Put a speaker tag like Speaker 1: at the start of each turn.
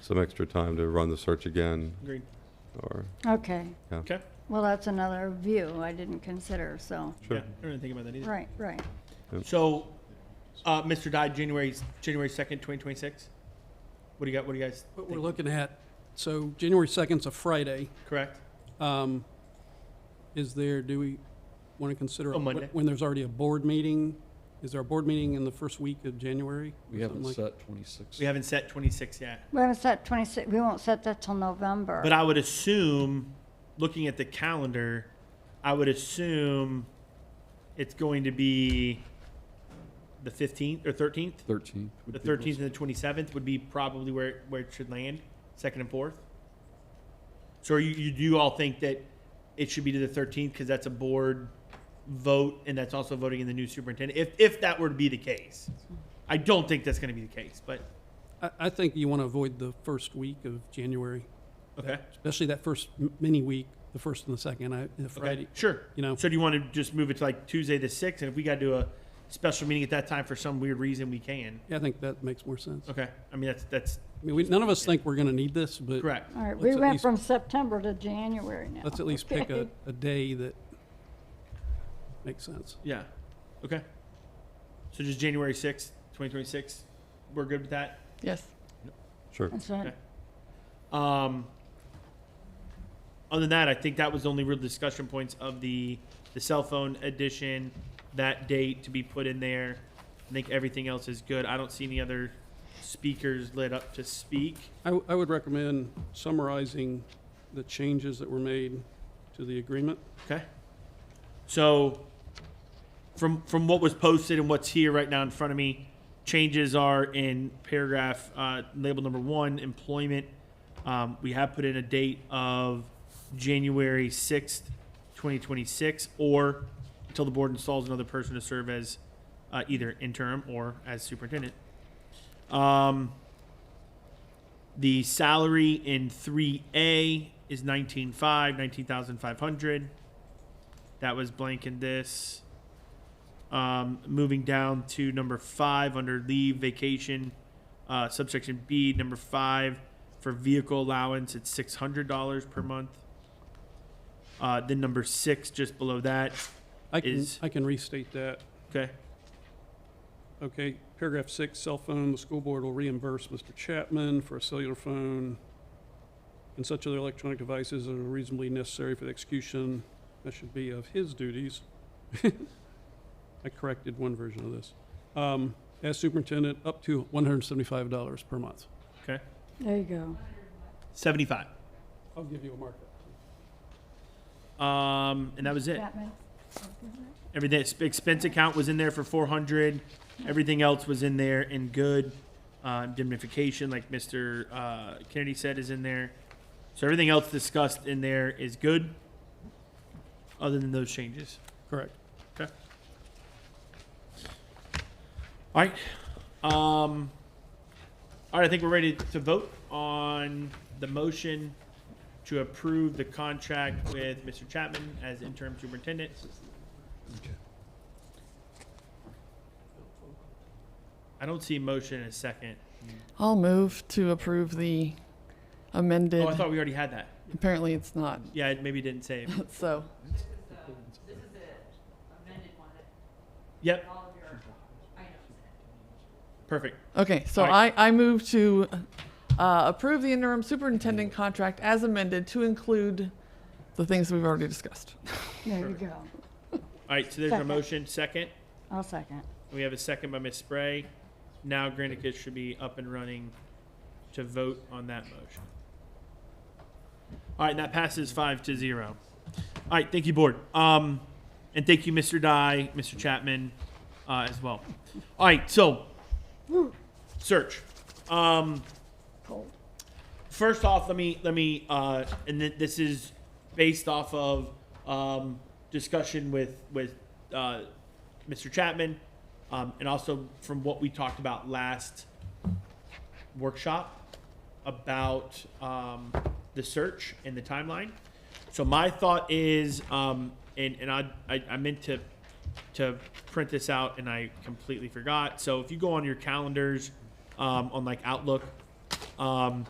Speaker 1: some extra time to run the search again,
Speaker 2: Agreed.
Speaker 1: or,
Speaker 3: Okay,
Speaker 2: Okay.
Speaker 3: well, that's another view I didn't consider, so,
Speaker 1: Sure.
Speaker 2: Yeah, I didn't think about that either.
Speaker 3: right, right.
Speaker 2: So, uh, Mr. Dodd, January, January second, twenty twenty-six? What do you got, what do you guys
Speaker 4: What we're
Speaker 2: think,
Speaker 4: looking at, so January 2nd's a Friday.
Speaker 2: correct?
Speaker 4: Um, Is there, do we want to consider?
Speaker 2: A Oh, Monday.
Speaker 4: When there's already a board meeting? Is there a board meeting in the first week of January? or something
Speaker 5: We haven't
Speaker 4: like-
Speaker 5: set twenty-six.
Speaker 2: We haven't set twenty-six yet.
Speaker 3: We haven't set 26, we won't set that till November.
Speaker 2: But I would assume, looking at the calendar, I would assume it's going to be the fifteenth or thirteenth?
Speaker 5: Thirteenth. would
Speaker 2: The
Speaker 5: be close.
Speaker 2: thirteenth and the twenty-seventh would be probably where, where it should land, second and fourth. So are you, you do all think that it should be to the thirteenth, because that's a board vote, and that's also voting in the new superintendent, if, if that were to be the case. I don't think that's gonna be the case, but,
Speaker 4: I, I think you want to avoid the first week of January,
Speaker 2: okay,
Speaker 4: especially that first m- mini week, the first and the second, I, the
Speaker 2: okay,
Speaker 4: Friday.
Speaker 2: sure.
Speaker 4: You know,
Speaker 2: So do you want to just move it to like Tuesday the sixth, and if we gotta do a special meeting at that time for some weird reason, we can?
Speaker 4: yeah, I think that makes more sense. I
Speaker 2: Okay, I mean, that's, that's
Speaker 4: mean, we, none of us think we're going to need this, but
Speaker 2: correct.
Speaker 3: All right, we
Speaker 4: Let's at
Speaker 3: went
Speaker 4: least-
Speaker 3: from September to January now.
Speaker 4: let's at least pick a,
Speaker 3: okay?
Speaker 4: a day that makes sense.
Speaker 2: Yeah. Okay. So just January sixth, twenty twenty six. We're good with that.
Speaker 3: Yes.
Speaker 1: sure.
Speaker 3: That's right.
Speaker 2: Um, other than that, I think that was the only real discussion points of the the cell phone edition. That date to be put in there. I think everything else is good. I don't see any other speakers lit up to speak.
Speaker 4: I, w- I would recommend summarizing the changes that were made to the agreement.
Speaker 2: Okay. So from from what was posted and what's here right now in front of me, changes are in paragraph uh, label number one, employment. Um, we have put in a date of January sixth, twenty twenty six, or until the board installs another person to serve as uh, either interim or as superintendent. Um, the salary in three A is nineteen five, nineteen thousand five hundred. That was blank in this. Um, moving down to number five under leave vacation, uh, subsection B, number five for vehicle allowance, it's six hundred dollars per month. Uh, then number six, just below that.
Speaker 4: I can,
Speaker 2: Is-
Speaker 4: I can restate that.
Speaker 2: Okay.
Speaker 4: Okay, paragraph six, cell phone, the school board will reimburse Mr. Chapman for a cellular phone and such other electronic devices that are reasonably necessary for the execution, that should be of his duties. I corrected one version of this. Um, as superintendent, up to one hundred and seventy-five dollars per month.
Speaker 2: Okay.
Speaker 3: There you go.
Speaker 2: Seventy five.
Speaker 4: I'll give you a markup.
Speaker 2: Um, and that was it.
Speaker 3: Chapman?
Speaker 2: Everything exp- expense account was in there for four hundred. Everything else was in there in good. Uh, indemnification, like Mr. Uh, Kennedy said, is in there. So everything else discussed in there is good. Other than those changes.
Speaker 4: Correct.
Speaker 2: All right. Um, all right. I think we're ready to vote on the motion to approve the contract with Mr. Chapman as interim superintendent. I don't see motion in a second.
Speaker 6: I'll move to approve the amended.
Speaker 2: Oh, I thought we already had that.
Speaker 6: Apparently, it's not.
Speaker 2: Yeah, it maybe didn't save.
Speaker 6: So,
Speaker 2: Yep. Perfect.
Speaker 6: okay. So
Speaker 2: All right.
Speaker 6: I, I move to uh, approve the interim superintendent contract as amended to include the things we've already discussed.
Speaker 3: There you go.
Speaker 2: All right. So there's a
Speaker 3: Second.
Speaker 2: motion. Second.
Speaker 3: I'll second.
Speaker 2: We have a second by Ms. Spray. Now Granicus should be up and running to vote on that motion. All right, and that passes five to zero. All right, thank you, board. Um, and thank you, Mr. Dye, Mr. Chapman, uh, as well. All right, so search. Um,
Speaker 3: Cold.
Speaker 2: first off, let me let me uh, and th- this is based off of um, discussion with with uh, Mr. Chapman, um, and also from what we talked about last workshop about um, the search and the timeline. So my thought is, um, and and I, I I meant to to print this out and I completely forgot. So if you go on your calendars um, on like Outlook. Um,